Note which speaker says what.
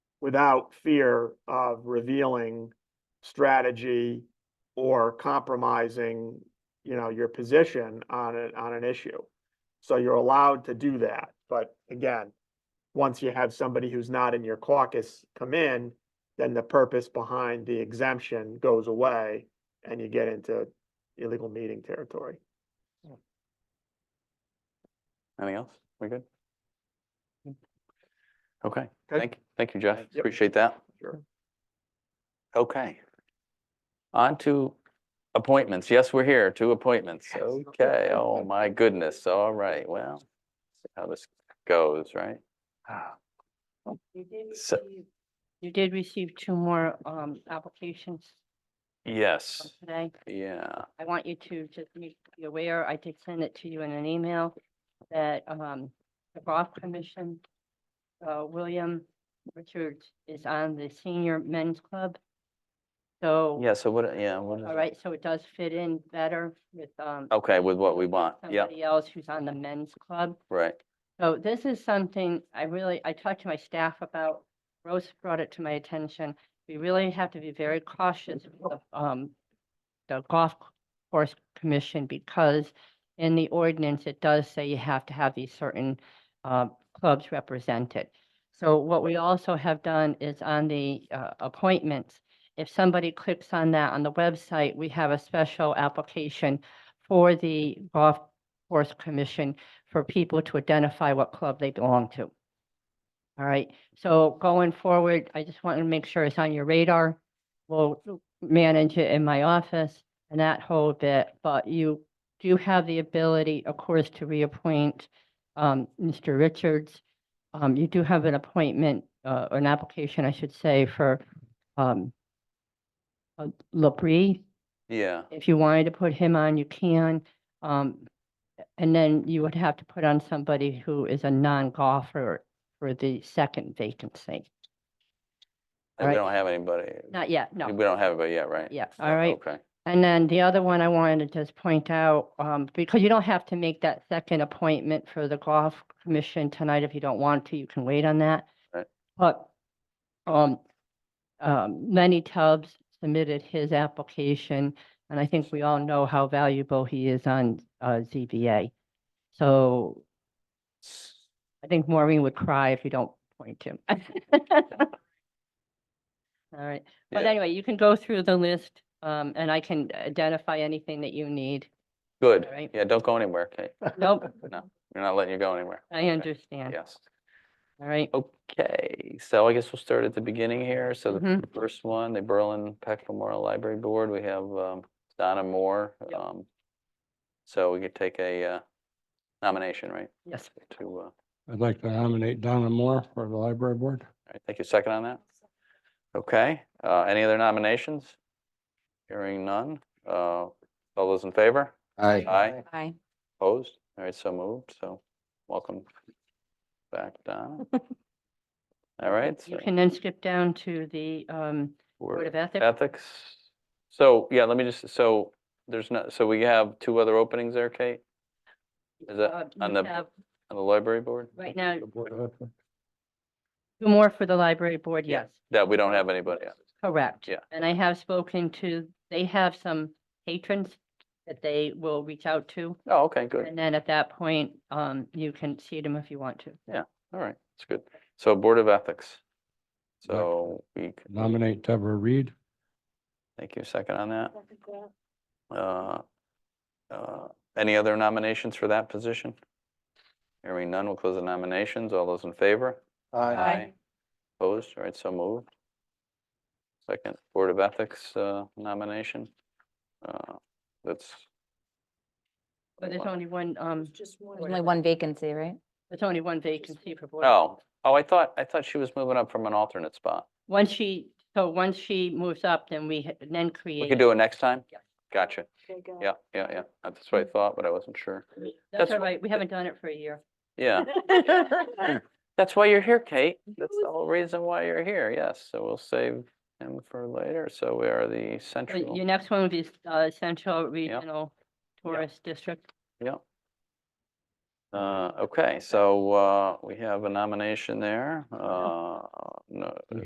Speaker 1: without fear of revealing strategy or compromising, you know, your position on it, on an issue. So you're allowed to do that, but again, once you have somebody who's not in your caucus come in, then the purpose behind the exemption goes away and you get into illegal meeting territory.
Speaker 2: Anything else? We good? Okay,
Speaker 1: Okay.
Speaker 2: thank, thank you, Jeff.
Speaker 1: Yep.
Speaker 2: Appreciate that.
Speaker 1: Sure.
Speaker 2: Okay. On to appointments. Yes, we're here, two appointments.
Speaker 1: Yes.
Speaker 2: Okay, oh my goodness. All right, well, see how this goes, right?
Speaker 3: You did
Speaker 2: So-
Speaker 3: receive, you did receive two more um applications from
Speaker 2: Yes,
Speaker 3: today.
Speaker 2: yeah,
Speaker 3: I want you to just make you aware, I did send it to you in an email that um the golf commission, uh William Richards is on the senior men's club. So,
Speaker 2: yeah, so what, yeah, what is?
Speaker 3: all right, so it does fit in better with um
Speaker 2: Okay, with what we want, Oh, yeah,
Speaker 3: somebody else who's on the men's club.
Speaker 2: right,
Speaker 3: So this is something I really, I talked to my staff about, Rose brought it to my attention. We really have to be very cautious of um the golf course commission because in the ordinance, it does say you have to have these certain uh clubs represented. So what we also have done is on the uh appointments, if somebody clicks on that on the website, we have a special application for the golf course commission for people to identify what club they belong to. All right, so going forward, I just want to make sure it's on your radar. We'll manage it in my office and that whole bit, but you do have the ability, of course, to reappoint um, Mr. Richards. Um, you do have an appointment, uh, an application, I should say, for um, uh, LaBrie
Speaker 2: yeah,
Speaker 3: if you wanted to put him on, you can. Um, and then you would have to put on somebody who is a non-golfer for the second vacancy.
Speaker 2: and we
Speaker 3: Right.
Speaker 2: don't have anybody,
Speaker 3: Not yet, no.
Speaker 2: we don't have anybody yet, right?
Speaker 3: Yes,
Speaker 2: Yeah,
Speaker 3: all right.
Speaker 2: Okay,
Speaker 3: And then the other one I wanted to just point out, um, because you don't have to make that second appointment for the golf commission tonight if you don't want to, you can wait on that.
Speaker 2: Right.
Speaker 3: But, um, um, Lenny Tubbs submitted his application, and I think we all know how valuable he is on, uh, ZBA. So I think Maureen would cry if you don't point him. All right. But
Speaker 2: Yeah.
Speaker 3: anyway, you can go through the list, um, and I can identify anything that you need.
Speaker 2: good,
Speaker 3: All right.
Speaker 2: yeah, don't go anywhere, Kate,
Speaker 3: Nope,
Speaker 2: you're not letting you go anywhere,
Speaker 3: I understand.
Speaker 2: yes.
Speaker 3: All right.
Speaker 2: Okay, so I guess we'll start at the beginning here. So the
Speaker 3: Mhm.
Speaker 2: first one, the Berlin Peck Memorial Library Board, we have um, Donna Moore.
Speaker 3: Yep.
Speaker 2: um, So we could take a uh, nomination, right,
Speaker 3: Yes.
Speaker 2: to, uh, all
Speaker 4: I'd like to nominate Donna Moore for the library board.
Speaker 2: right, take a second on that? Okay, uh, any other nominations? Hearing none. Uh, All those in favor?
Speaker 4: Aye.
Speaker 2: Aye,
Speaker 3: Aye.
Speaker 2: opposed? All right, so moved, so welcome back, Donna. All right.
Speaker 3: You
Speaker 2: so-
Speaker 3: can then skip down to the, um, Board
Speaker 2: we're-
Speaker 3: of Ethics.
Speaker 2: Ethics. So, yeah, let me just, so there's not, so we have two other openings there, Kate? Is that
Speaker 3: uh,
Speaker 2: on
Speaker 3: you
Speaker 2: the-
Speaker 3: have
Speaker 2: On the library board?
Speaker 3: Right now,
Speaker 4: The Board of Ethics.
Speaker 3: two more for the library board,
Speaker 2: Yeah.
Speaker 3: yes,
Speaker 2: That we don't have anybody on.
Speaker 3: correct.
Speaker 2: Yeah.
Speaker 3: And I have spoken to, they have some patrons that they will reach out to.
Speaker 2: Oh, okay, good.
Speaker 3: And then at that point, um, you can see them if you want to.
Speaker 2: All right, that's good. So Board of Ethics. So we, c-
Speaker 4: Nominate Deborah Reed.
Speaker 2: thank you, second on that. Uh, uh, Any other nominations for that position? Hearing none, we'll close the nominations. All those in favor?
Speaker 3: Aye.
Speaker 2: Opposed? All right, so moved. Second Board of Ethics uh, nomination. Uh, That's.
Speaker 3: But there's
Speaker 2: Wow.
Speaker 3: only one, um,
Speaker 5: There's only one vacancy, right?
Speaker 3: there's only one vacancy for board.
Speaker 2: Oh, oh, I thought, I thought she was moving up from an alternate spot.
Speaker 3: Once she, so once she moves up, then we ha- then create.
Speaker 2: We could do it next time?
Speaker 3: Yeah. Mm-hmm.
Speaker 2: Gotcha. Yeah, yeah, yeah. That's what I thought, but I wasn't sure.
Speaker 3: That's
Speaker 2: That's
Speaker 3: all right, we haven't done it for a year.
Speaker 2: Yeah, that's why you're here, Kate. That's the whole reason why you're here. Yes, so we'll save him for later. So we are the
Speaker 3: Uh,
Speaker 2: central.
Speaker 3: Your next one would be uh, Central Regional Tourist District.
Speaker 2: Yeah. Uh, okay, so, uh, we have a nomination there. Uh, no,